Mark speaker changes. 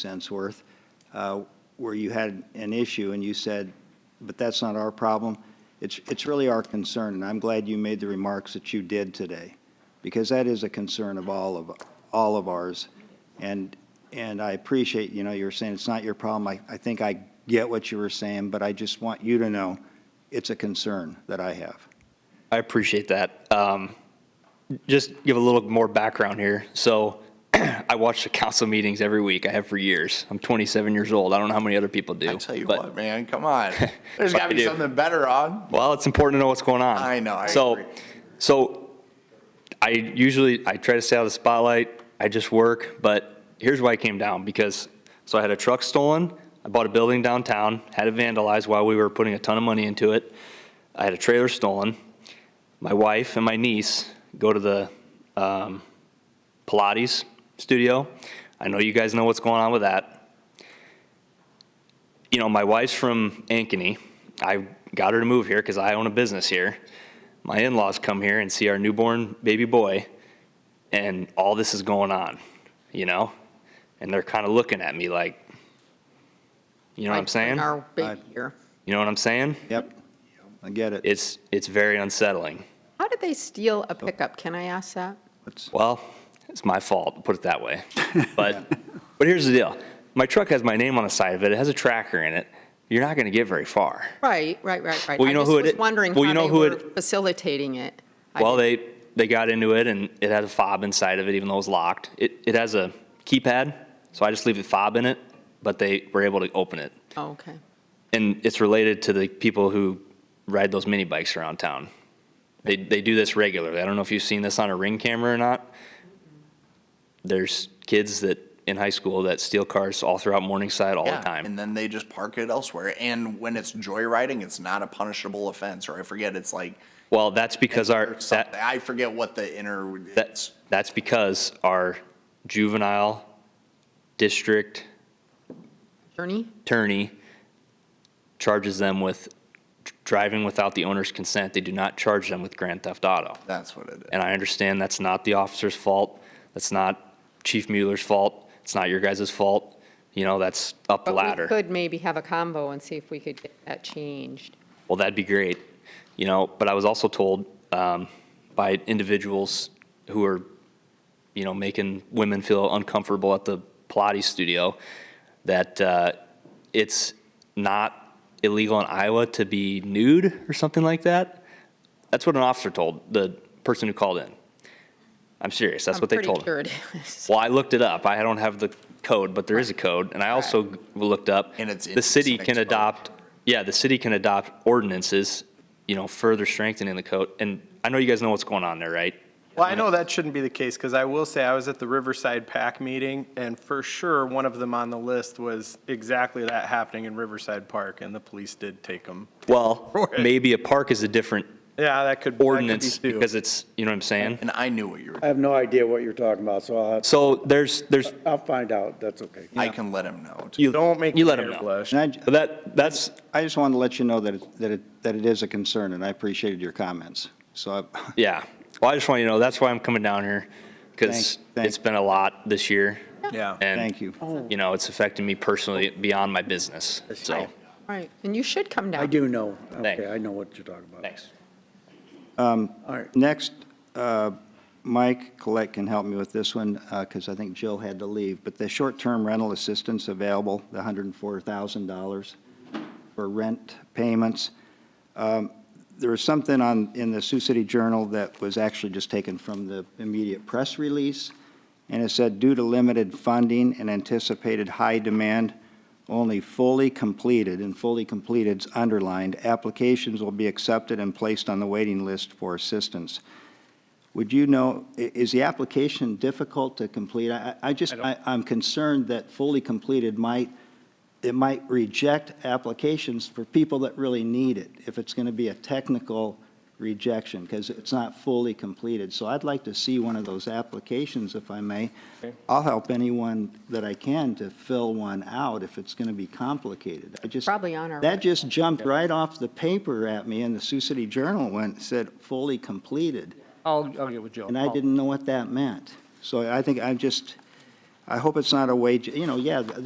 Speaker 1: cents worth, uh, where you had an issue and you said, but that's not our problem. It's, it's really our concern, and I'm glad you made the remarks that you did today, because that is a concern of all of, all of ours. And, and I appreciate, you know, you were saying it's not your problem. I, I think I get what you were saying, but I just want you to know it's a concern that I have.
Speaker 2: I appreciate that. Um, just give a little more background here. So I watch the council meetings every week. I have for years. I'm 27 years old. I don't know how many other people do.
Speaker 3: I tell you
Speaker 2: but-
Speaker 3: what, man, come on. There's
Speaker 2: But
Speaker 3: got to
Speaker 2: I
Speaker 3: be
Speaker 2: do.
Speaker 3: something better on.
Speaker 2: Well, it's important to know what's going on.
Speaker 3: I know, I
Speaker 2: so,
Speaker 3: agree.
Speaker 2: so I usually I try to stay out of the spotlight. I just work, but here's why I came down because so I had a truck stolen. I bought a building downtown, had it vandalized while we were putting a ton of money into it. I had a trailer stolen. My wife and my niece go to the um, Pilates studio. I know you guys know what's going on with that you know, my wife's from Ankeny. I got her to move here because I own a business here. My in laws come here and see our newborn baby boy, and all this is going on, you know? And they're kind of looking at me like, you know what I'm saying?
Speaker 4: Our
Speaker 1: I-
Speaker 4: big year.
Speaker 2: You know what I'm saying?
Speaker 1: Yep, I get it.
Speaker 2: It's, it's very unsettling.
Speaker 4: How did they steal a pickup? Can I ask that?
Speaker 1: It's-
Speaker 2: Well, it's my fault, put it that way. But, but here's the deal my truck has my name on the side of it, it has a tracker in it. You're not going to get very far.
Speaker 4: Right, right, right, right.
Speaker 2: Well, you know who it
Speaker 4: I just
Speaker 2: i-
Speaker 4: was wondering
Speaker 2: well, you
Speaker 4: how
Speaker 2: know
Speaker 4: they
Speaker 2: who
Speaker 4: were
Speaker 2: it-
Speaker 4: facilitating it. I
Speaker 2: Well,
Speaker 4: didn't-
Speaker 2: they, they got into it and it had a fob inside of it, even though it was locked. It, it has a keypad, so I just leave the fob in it, but they were able to open it.
Speaker 4: Oh, Okay.
Speaker 2: And it's related to the people who ride those mini bikes around town. They, they do this regularly. I don't know if you've seen this on a ring camera or not. There's kids that, in high school, that steal cars all throughout Morningside all the time.
Speaker 3: And then they just park it elsewhere. And when it's joyriding, it's not a punishable offense, or I forget, it's like,
Speaker 2: Well, that's because our,
Speaker 3: or
Speaker 2: that,
Speaker 3: something. I forget what the inner,
Speaker 2: That's, that's because our juvenile district
Speaker 4: Journey?
Speaker 2: attorney charges them with dr- driving without the owner's consent. They do not charge them with grand theft auto.
Speaker 3: that's what it is.
Speaker 2: And I understand that's not the officer's fault. That's not Chief Mueller's fault. It's not your guys' fault. You know, that's up the
Speaker 4: But we
Speaker 2: ladder.
Speaker 4: could maybe have a combo and see if we could get that changed.
Speaker 2: Well, that'd be great. You know, but I was also told um, by individuals who are, you know, making women feel uncomfortable at the Pilates studio that uh, it's not illegal in Iowa to be nude or something like that. That's what an officer told the person who called in. I'm serious. That's
Speaker 4: I'm
Speaker 2: what they told.
Speaker 4: pretty
Speaker 2: him.
Speaker 4: sure it is.
Speaker 2: Well, I looked it up. I don't have the code, but there is a code, and I also g- looked up.
Speaker 3: And it's
Speaker 2: The city
Speaker 3: indecent
Speaker 2: can
Speaker 3: exposure.
Speaker 2: adopt, yeah, the city can adopt ordinances, you know, further strengthening the code. And I know you guys know what's going on there, right?
Speaker 5: Well, I know that shouldn't be the case, because I will say, I was at the Riverside PAC meeting, and for sure, one of them on the list was exactly that happening in Riverside Park, and the police did take them.
Speaker 2: Well, maybe a park is a different
Speaker 5: Yeah, that could. that could be
Speaker 2: ordinance
Speaker 5: too.
Speaker 2: because it's, you know what I'm saying?
Speaker 3: And I knew what you were,
Speaker 6: I have no idea what you're talking about, so I'll,
Speaker 2: So there's, there's,
Speaker 6: I'll find out. That's okay.
Speaker 3: I can let him know. too.
Speaker 2: you,
Speaker 5: Don't make
Speaker 2: you
Speaker 5: the
Speaker 2: let them
Speaker 5: mayor
Speaker 2: know.
Speaker 5: blush.
Speaker 1: And I,
Speaker 2: But That, that's,
Speaker 1: I just wanted to let you know that, it- that it, that it is a concern, and I appreciated your comments. So I,
Speaker 2: yeah. Well, I just want you to know, that's why I'm coming down here, because
Speaker 1: Thank- thank-
Speaker 2: it's been a lot this year.
Speaker 5: Yeah.
Speaker 2: And,
Speaker 1: Thank you.
Speaker 2: You know, it's affecting me personally beyond my business, so.
Speaker 4: Right, and you should come down.
Speaker 6: I do know.
Speaker 2: Thanks.
Speaker 6: Okay, I know what you're talking about.
Speaker 2: Thanks.
Speaker 6: All right.
Speaker 1: Next, uh, Mike Collette can help me with this one, because I think Jill had to leave, but the short-term rental assistance available, the $104,000 for rent payments. Um, There was something on, in the Sioux City Journal that was actually just taken from the immediate press release, and it said, due to limited funding and anticipated high demand, only fully completed, and fully completed's underlined, applications will be accepted and placed on the waiting list for assistance. Would you know, i- is the application difficult to complete? I, I I just, I, I'm concerned that fully completed might, it might reject applications for people that really need it, if it's going to be a technical rejection, because it's not fully completed. So I'd like to see one of those applications, if I may. I'll help anyone that I can to fill one out if it's going to be complicated. I just.
Speaker 4: Probably on our
Speaker 1: That just jumped right off the paper at me, and the Sioux City Journal went, said, fully completed.
Speaker 7: I'll, I'll get with Joe.
Speaker 1: And I
Speaker 7: I'll-
Speaker 1: didn't know what that meant. So I think I just, I hope it's not a wage, you know, yeah, the